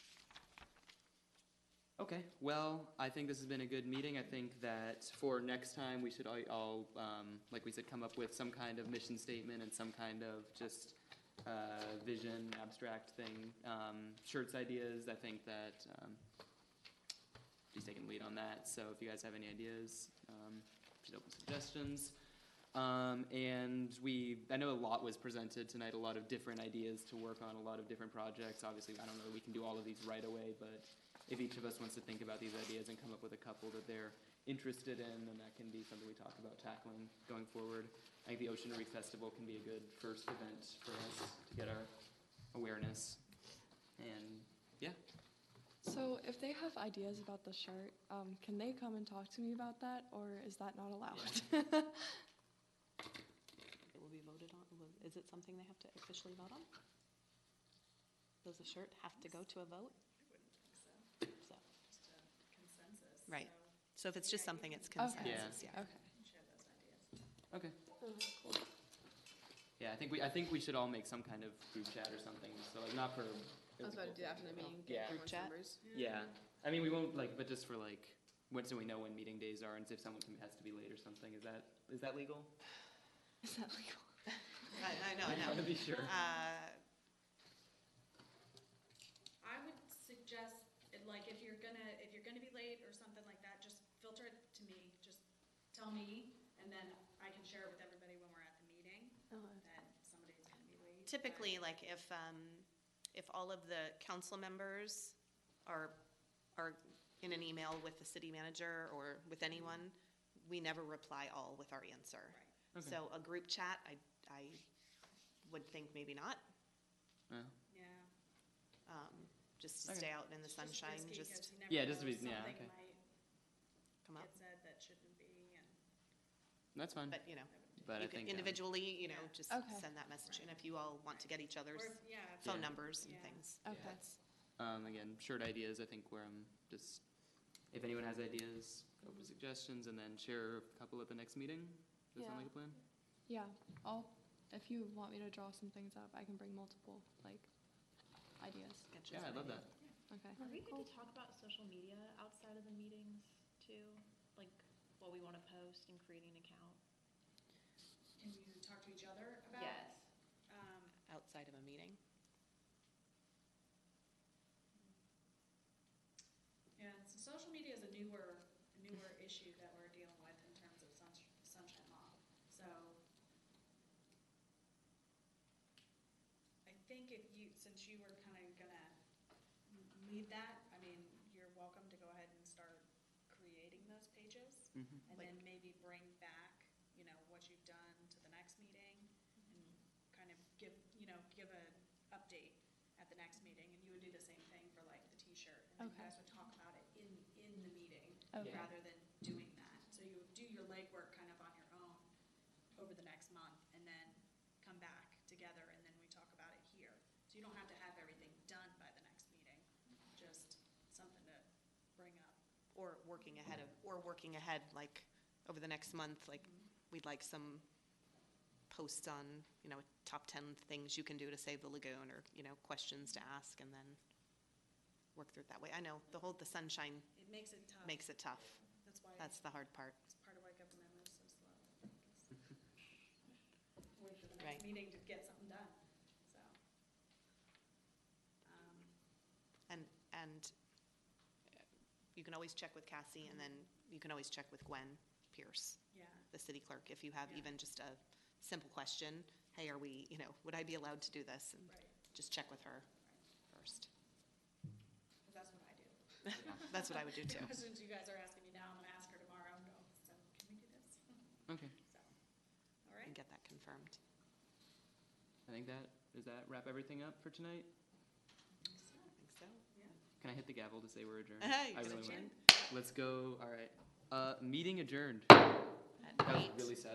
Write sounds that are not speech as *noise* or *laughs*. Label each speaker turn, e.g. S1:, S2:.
S1: Okay, well, I think this has been a good meeting. I think that for next time, we should all- all, um, like we said, come up with some kind of mission statement and some kind of just uh, vision, abstract thing. Um, Shirts ideas, I think that um, she's taking lead on that, so if you guys have any ideas, um, she's open to suggestions. Um, and we, I know a lot was presented tonight, a lot of different ideas to work on, a lot of different projects. Obviously, I don't know that we can do all of these right away, but if each of us wants to think about these ideas and come up with a couple that they're interested in, then that can be something we talk about tackling going forward. I think the Ocean Reef Festival can be a good first event for us to get our awareness. And, yeah,
S2: So if they have ideas about the shirt, um, can they come and talk to me about that, or is that not allowed?
S3: It will be voted on, will- is it something they have to officially vote on? Does the shirt have to go to a vote? So,
S4: just a consensus.
S3: Right, so
S4: so
S3: if it's just something, it's
S2: Okay.
S3: consensus, yeah.
S2: *laughs* Okay.
S4: we can Share those ideas.
S1: okay. Yeah, I think we, I think we should all make some kind of group chat or something, so like not for.
S5: I was about to do that after the meeting,
S1: Yeah.
S5: get everyone's
S3: Chat.
S5: numbers.
S1: Yeah, I mean, we won't like, but just for like, when, so we know when meeting days are and if someone can- has to be late or something, is that, is that legal?
S2: Is that legal?
S3: I know, Uh,
S1: I *laughs* just wanna be sure.
S4: I would suggest, it- like, if you're gonna, if you're gonna be late or something like that, just filter it to me, just tell me, and then I can share it with everybody when we're at the meeting, that somebody's gonna be late.
S3: Typically, like if, um, if all of the council members are, are in an email with the city manager or with anyone, we never reply all with our answer.
S1: Right.
S3: So a group chat, I, I would think maybe not,
S1: Yeah.
S4: But, Yeah.
S3: um, just to
S1: Okay.
S3: stay out in the
S4: It's just
S3: sunshine,
S4: risky 'cause
S3: just
S4: you never
S1: Yeah, just
S4: know,
S1: to be- yeah,
S4: something
S1: okay.
S3: come
S4: might
S3: up.
S4: Get said that shouldn't be, and
S1: That's fine,
S3: But, you know,
S1: but I
S3: you can
S1: think. um,
S3: individually, you know,
S4: Yeah.
S3: just
S2: Okay.
S3: send that message. And if you all want to get each other's
S4: Or, yeah, if-
S3: phone
S1: Yeah.
S3: numbers and
S4: Yeah.
S3: things.
S1: Yeah.
S2: Okay.
S1: Um, again, shared ideas, I think where I'm just, if anyone has ideas, open suggestions, and then share a couple at the next meeting. Does that sound
S2: Yeah.
S1: like a plan?
S2: Yeah, I'll, if you want me to draw some things up, I can bring multiple, like, ideas.
S3: Sketches
S1: Yeah, I
S3: and
S1: love that.
S3: ideas.
S2: Okay.
S6: Are we good to talk about social media outside of the meetings too? Like what we want to post and creating an account?
S4: can you talk to each other about? Um,
S3: Outside of a meeting.
S4: Yeah, so social media is a newer, newer issue that we're dealing with in terms of sunsh- sunshine law. So I think if you, since you were kind of gonna m- lead that, I mean, you're welcome to go ahead and start creating those pages.
S1: Mhm.
S4: And then maybe bring back, you know, what you've done to the next meeting and kind of give, you know, give an update at the next meeting. And you would do the same thing for like the t-shirt. And then you
S2: Okay.
S4: guys would talk about it in, in the meeting
S2: Okay.
S4: rather than doing that. So you would do your legwork kind of on your own over the next month and then come back together and then we talk about it here. So you don't have to have everything done by the next meeting, just something to bring up.
S3: Or working ahead of, or working ahead, like, over the next month, like, we'd like some posts on, you know, top ten things you can do to save the lagoon, or, you know, questions to ask, and then work through it that way. I know, the whole, the sunshine
S4: It makes it tough.
S3: makes it tough.
S4: That's why.
S3: That's the hard part.
S4: It's part of why government moves so slow. Wait for the
S3: Right.
S4: next meeting to get something done, so. Um,
S3: And, and uh, you can always check with Cassie, and then you can always check with Gwen Pierce,
S4: Yeah,
S3: the city clerk, if you have
S4: Yeah.
S3: even just a simple question, hey, are we, you know, would I be allowed to do this? And
S4: Right.
S3: Just check with her first.
S4: but that's what I do.
S3: That's what I would do
S4: The *laughs*
S3: too.
S4: questions you guys are asking me now, I'm gonna ask her tomorrow, no, so can we do this?
S1: Okay,
S4: So, all right.
S3: And get that confirmed.
S1: I think that, does that wrap everything up for tonight?
S4: So,
S3: I think so.
S4: Yeah.
S1: Can I hit the gavel to say we're adjourned?
S3: Hey,
S1: I
S3: it's
S1: really
S3: adjourned.
S1: will. Let's go, all right. Uh, meeting adjourned.
S3: At
S1: That was
S3: eight.
S1: really sad.